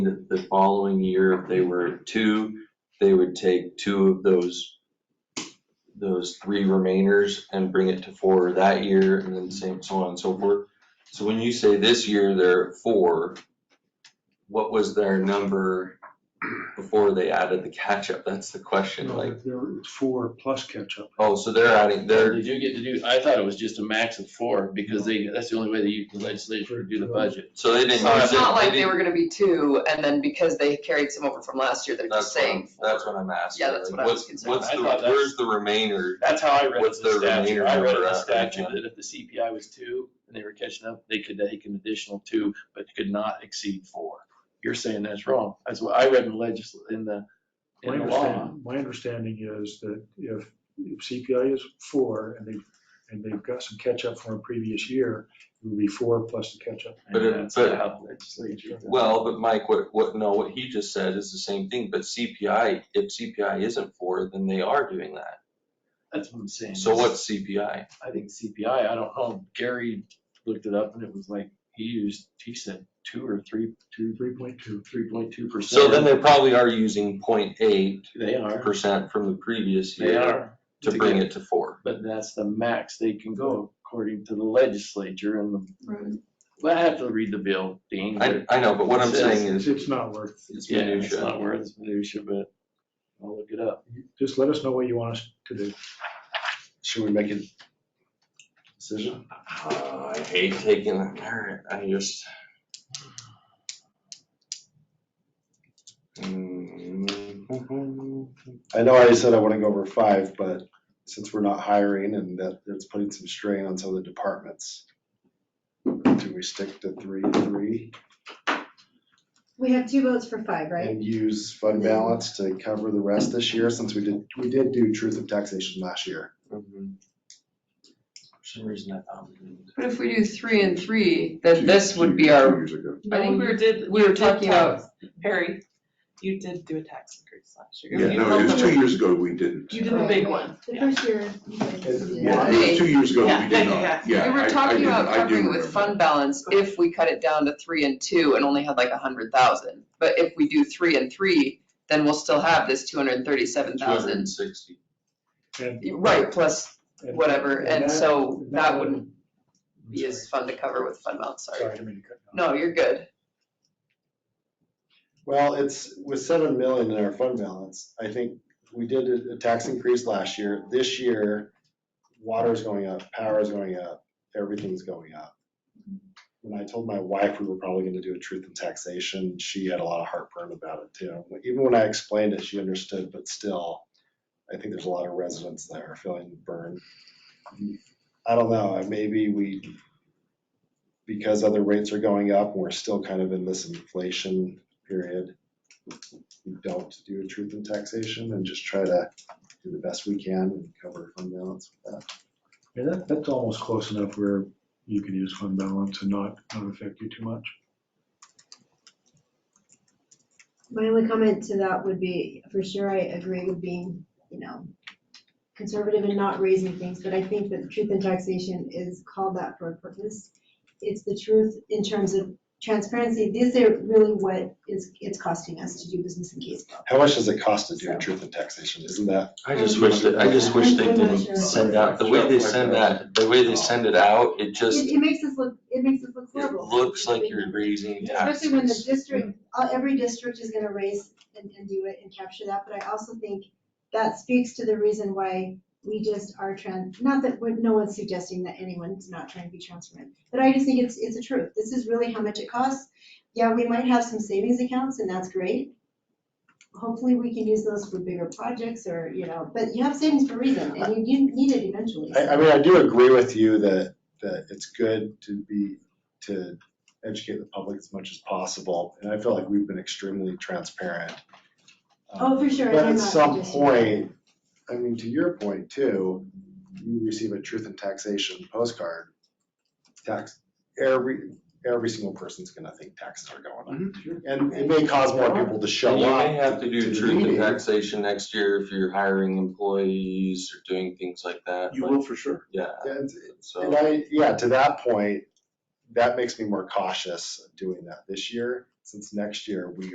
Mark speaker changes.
Speaker 1: the, the following year, if they were two, they would take two of those, those three remainers and bring it to four that year, and then same, so on and so forth. So when you say this year they're at four, what was their number before they added the catch-up? That's the question,
Speaker 2: No,
Speaker 1: like,
Speaker 2: there- it's four plus catch-up.
Speaker 1: oh, so they're adding, they're,
Speaker 3: Did you get to do, I thought it was just a max of four, because they, that's the only way that you, the legislature could do the budget.
Speaker 1: so they didn't.
Speaker 4: So it's
Speaker 1: use it,
Speaker 4: not like they
Speaker 1: didn't-
Speaker 4: were gonna be two, and then because they carried some over from last year, they're just
Speaker 1: That's what I'm,
Speaker 4: saying.
Speaker 1: that's what I'm asking.
Speaker 4: Yeah, that's
Speaker 1: like,
Speaker 4: what I was
Speaker 1: what's-
Speaker 4: concerned
Speaker 1: What's
Speaker 3: about.
Speaker 1: the,
Speaker 3: I thought that's-
Speaker 1: where's the remainder?
Speaker 3: That's how I read the
Speaker 1: What's their
Speaker 3: statute,
Speaker 1: remainder
Speaker 3: I read
Speaker 1: number
Speaker 3: the
Speaker 1: at right
Speaker 3: statute
Speaker 1: now?
Speaker 3: that if the CPI was two and they were catching up, they could take an additional two, but could not exceed four. You're saying that's wrong, that's what I read in the legis, in the,
Speaker 2: My
Speaker 3: in the law.
Speaker 2: understanding, my understanding is that if, if CPI is four and they've, and they've got some catch-up from a previous year, it would be four plus the catch-up.
Speaker 1: But
Speaker 3: And
Speaker 1: it-
Speaker 3: that's
Speaker 1: but-
Speaker 3: how the legislature-
Speaker 1: Well, but Mike, what, what, no, what he just said is the same thing, but CPI, if CPI isn't for, then they are doing that.
Speaker 3: That's what I'm saying.
Speaker 1: So what's CPI?
Speaker 3: I think CPI, I don't know, Gary looked it up and it was like, he used, he said two or three, two,
Speaker 2: Three point two.
Speaker 3: three point two percent.
Speaker 1: So then they probably are using 0.8
Speaker 3: They are,
Speaker 1: percent from the previous
Speaker 3: they
Speaker 1: year
Speaker 3: are.
Speaker 1: to bring it to four.
Speaker 3: But that's the max they can go according to the legislature and the, well, I have to read the bill, Dean.
Speaker 1: I, I know, but what I'm
Speaker 3: It says-
Speaker 1: saying
Speaker 2: It's,
Speaker 1: is,
Speaker 2: it's not worth,
Speaker 1: it's
Speaker 3: Yeah, it's
Speaker 1: minutia.
Speaker 3: not worth minutia, but I'll look it up.
Speaker 2: just let us know what you want us to do.
Speaker 3: Should we make a decision?
Speaker 1: Uh, I hate taking that, carrot. I just.
Speaker 3: Mm-hmm.
Speaker 1: Mm.
Speaker 5: I know I said I want to go over five, but since we're not hiring and that it's putting some strain on some of the departments. Do we stick to three, three
Speaker 6: We have two votes for five, right?
Speaker 5: and use fund balance to cover the rest this year since we did, we did do truth of taxation last year.
Speaker 1: Mhm. For some reason, I thought we didn't.
Speaker 4: But if we do three and three, then this would be our,
Speaker 7: I think we were did.
Speaker 4: Um, we were
Speaker 7: you did
Speaker 4: talking about-
Speaker 7: tax- Harry, you did do a tax increase last year.
Speaker 8: Yeah,
Speaker 7: You
Speaker 8: no,
Speaker 7: held
Speaker 8: it was
Speaker 7: the-
Speaker 8: two years ago, we didn't.
Speaker 7: You did the big one,
Speaker 6: The
Speaker 7: yeah.
Speaker 6: first year. you guys did
Speaker 8: Yeah,
Speaker 6: that.
Speaker 8: it was two years ago,
Speaker 7: Yeah,
Speaker 8: we did
Speaker 7: yeah.
Speaker 8: not,
Speaker 4: we
Speaker 8: yeah. I-
Speaker 4: were
Speaker 8: I
Speaker 4: talking
Speaker 8: do-
Speaker 4: about
Speaker 8: I do
Speaker 4: covering with
Speaker 8: remember.
Speaker 4: fund balance if we cut it down to three and two and only had like a hundred thousand. But if we do three and three, then we'll still have this two hundred and thirty-seven thousand,
Speaker 1: 260.
Speaker 2: And-
Speaker 4: right, plus
Speaker 2: and-
Speaker 4: whatever, and
Speaker 2: that-
Speaker 4: so
Speaker 2: and
Speaker 4: that wouldn't
Speaker 2: I'm
Speaker 4: be as
Speaker 2: sorry.
Speaker 4: fun to cover with fund balance, sorry.
Speaker 2: Sorry, I didn't mean to cut you off.
Speaker 4: No, you're good.
Speaker 5: Well, it's with seven million in our fund balance, I think we did a- a tax increase last year. This year, water's going up, power's going up, everything's going up. When I told my wife we were probably gonna do a truth in taxation, she had a lot of heartburn about it too. Even when I explained it, she understood, but still, I think there's a lot of residents that are feeling the burn. I don't know, maybe we, because other rates are going up, and we're still kind of in this inflation period. We don't do a truth in taxation and just try to do the best we can and cover fund balance with that.
Speaker 2: And that, that's almost close enough where you could use fund balance and not, not affect you too much.
Speaker 6: My only comment to that would be, for sure, I agree with being, you know, conservative and not raising things, but I think that truth in taxation is called that for a purpose. It's the truth in terms of transparency. These are really what is, it's costing us to do business in Kaysville.
Speaker 5: How much does it cost to do a truth in taxation? Isn't that,
Speaker 1: I just wish that, I just wish they
Speaker 6: I'm not
Speaker 1: didn't
Speaker 6: sure.
Speaker 1: send out, the way they send that, the way they send it out, it just,
Speaker 6: It, it makes us look, it makes us look
Speaker 1: it
Speaker 6: horrible.
Speaker 1: looks like you're raising taxes.
Speaker 6: Especially when the district, uh, every district is gonna raise and, and do it and capture that, but I also think that speaks to the reason why we just are trans, not that, we're- no one's suggesting that anyone's not trying to be transparent, but I just think it's, it's the truth, this is really how much it costs. Yeah, we might have some savings accounts, and that's great. Hopefully, we can use those for bigger projects, or, you know, but you have savings for a reason, and you, you need it eventually.
Speaker 5: I, I mean, I do agree with you that, that it's good to be, to educate the public as much as possible. And I feel like we've been extremely transparent.
Speaker 6: Oh, for sure,
Speaker 5: But
Speaker 6: I'm
Speaker 5: at
Speaker 6: not
Speaker 5: some
Speaker 6: suggesting-
Speaker 5: point, I mean, to your point too, you receive a truth and taxation postcard. Tax, every, every single person's gonna think taxes are going up.
Speaker 8: Mm-hmm.
Speaker 5: And it may cause more people to
Speaker 1: And
Speaker 5: show
Speaker 1: you
Speaker 5: up.
Speaker 1: may have to do
Speaker 5: the
Speaker 1: truth in
Speaker 5: meeting.
Speaker 1: taxation next year if you're hiring employees or doing things like that,
Speaker 8: You
Speaker 1: but,
Speaker 8: will for sure.
Speaker 1: yeah,
Speaker 5: And And
Speaker 1: so.
Speaker 5: I, yeah, to that point, that makes me more cautious of doing that this year, since next year we